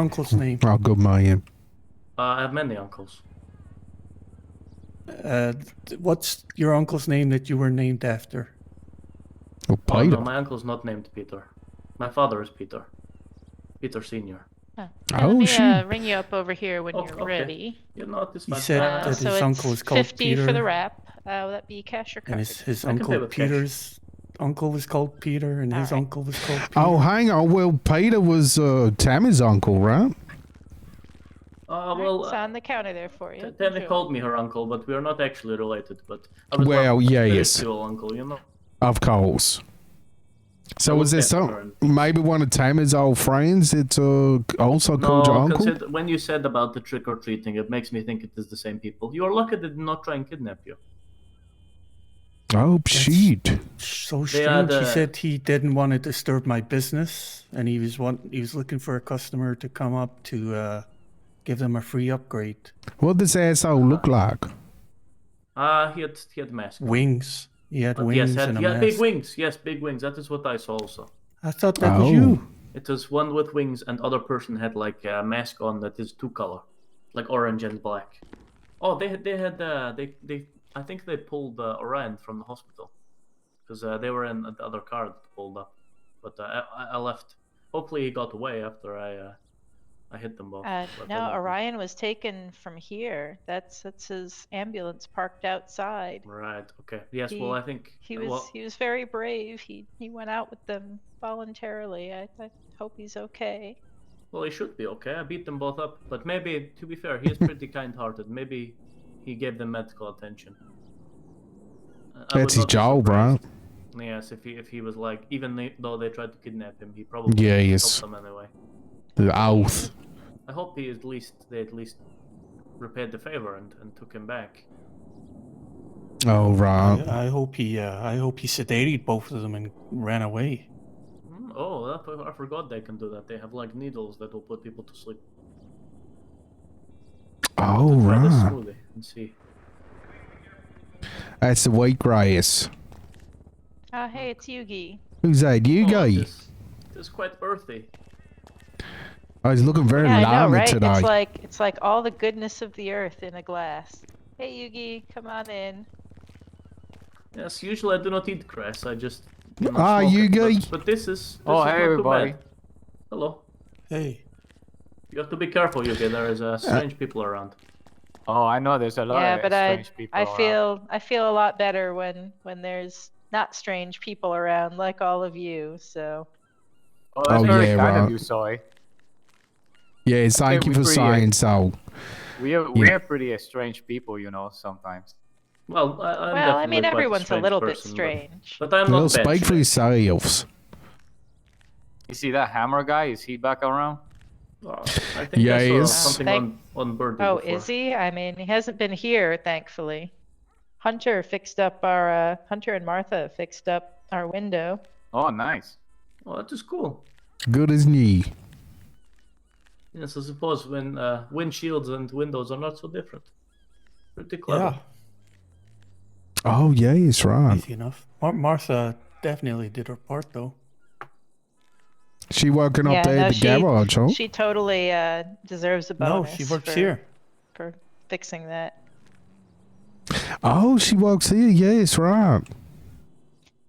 uncle's name? I'll go Mayan. Uh, I have many uncles. Uh, th- what's your uncle's name that you were named after? Oh, Oh, Peter. no, my uncle's not named Peter. My father is Peter. Peter Senior. Oh, Let me shoot. uh, ring you up over here when Oh, you're okay. ready. You know, this He man. said Uh, that his so it's uncle is called 50 for Peter. the wrap. Uh, will that be cash or card? And his, his I can play uncle with cash. Peter's uncle was called Peter, and his Alright. uncle was called Peter. Oh, hang on. Well, Peter was uh, Tammy's uncle, right? Uh, All right, well, it's uh, on the counter there for you. Tammy Enjoy. called me her uncle, but we are not actually related. But I was Well, not yeah, yes. spiritual uncle, you know. Of course. So was there Okay, some alright. maybe one of Tammy's old friends that uh, also No, called your uncle? consider, when you said about the trick or treating, it makes me think it is the same people. You are lucky they did not try and kidnap you. oh shit! so They strange. had, He uh, said he didn't want to disturb my business, and he was want, he was looking for a customer to come up to uh, give them a free upgrade. What does asshole look Uh, like? Ah, he had he had mask. Wings. He had But wings yes, had, and a he had mask. big wings. Yes, big wings. That is what I saw also. I thought that was Oh. you. It is one with wings, and other person had like a mask on that is two color, like orange and black. Oh, they had they had uh, they they I think they pulled uh, Orion from the hospital because uh, they were in the other car that pulled up. But uh, I, I- I left. Hopefully, he got away after I uh, I hit them both. Uh, but I no, don't know. Orion was taken from here. That's that's his ambulance parked outside. Right. Okay. Yes. He- well, I think He uh, was well, he was very brave. He he went out with them voluntarily. I, I hope he's okay. well, he should be okay. I beat them both up, but maybe to be fair, he is pretty kind-hearted. Maybe he gave them medical attention. I- I would That's his not be job, right? surprised. Yes. If he if he was like, even they- though they tried to kidnap him, he probably Yeah, helped yes. them anyway. The oath. I hope he at least they at least repaired the favor and, and took him back. Oh right. I I hope he uh, I hope he sedated both of them and ran away. Hmm, Oh, that, I forgot they can do that. They have like needles that will put people to sleep. Oh Try this right. smoothie and see. That's the wheatgrass. Ah, hey, it's Yugi. Who's that? You Oh, guy? this, this is quite earthy. Oh, he's looking very yeah, I know, lonely right? today. It's like it's like all the goodness of the earth in a glass. Hey, Yugi, come on in. Yes, usually I do not eat grass. I just you know, Ah, smoke you it, but- guy. But, this is. This Oh, is hey, not too everybody. bad. Hello. Hey, You have to be careful, Yuki. There is uh, strange people around. Oh, I know there's a lot yeah, of but I strange people. I around. feel I feel a lot better when when there's not strange people around like all of you. So Oh, that's Oh, very yeah, kind right. of you, Soy. Yeah, thank think you we for create- saying so. We are we are pretty strange people, you know, sometimes. Well, I, I'm well, I mean, definitely quite everyone's a, strange little person, bit but- strange. But, I'm They'll not bad. speak for shape. yourselves. You see that hammer guy? Is he back around? Oh, I think Yeah, I he saw is. something Thank- on on Birdie oh, before. is he? I mean, he hasn't been here, thankfully. Hunter fixed up our uh, Hunter and Martha fixed up our window. Oh, nice. Oh, that is cool. Good as new. Yes, I suppose when uh, windshields and windows are not so different. Pretty yeah, clever. Oh yeah, it's right. easy enough. Mar- Martha definitely did her part though. She working up Yeah, there no, at the she- garage, huh? She totally uh, deserves a No, bonus. she works for, here. for fixing that. Oh, she works here. Yeah, it's right.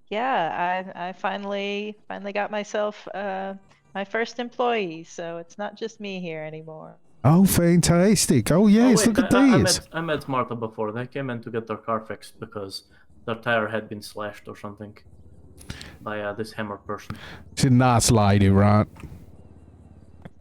Yeah, I I finally finally got myself uh, my first employee, so it's not just me here anymore. Oh, fantastic. Oh Oh, yes, wait, look at I, I- I this. met, I met Martha before. They came in to get their car fixed because their tire had been slashed or something by uh, this hammer person. She's a nice lady, right?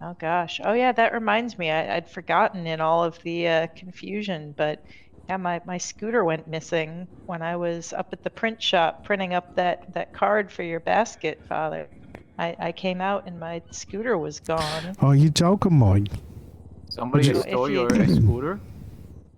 Oh gosh. Oh yeah, that reminds me. I, I'd forgotten in all of the uh, confusion, but yeah, my, my scooter went missing when I was up at the print shop printing up that, that card for your basket, Father. I, I came out and my scooter was gone. Oh, you joking, mate? Somebody you- stole If your you- scooter.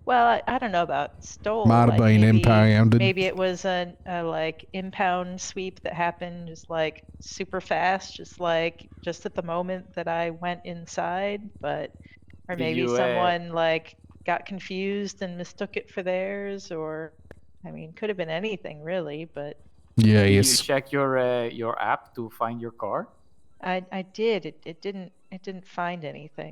Well, I, I don't know about stole. Might have like, been maybe- impounded. Maybe it was a, a like impound sweep that happened just like super fast, just like just at the moment that I went inside, but or Did maybe you, uh, someone like got confused and mistook it for theirs or I mean, could have been anything really, but Yeah, Did yes. You check your uh, your app to find your car. I I did. It it didn't it didn't find anything.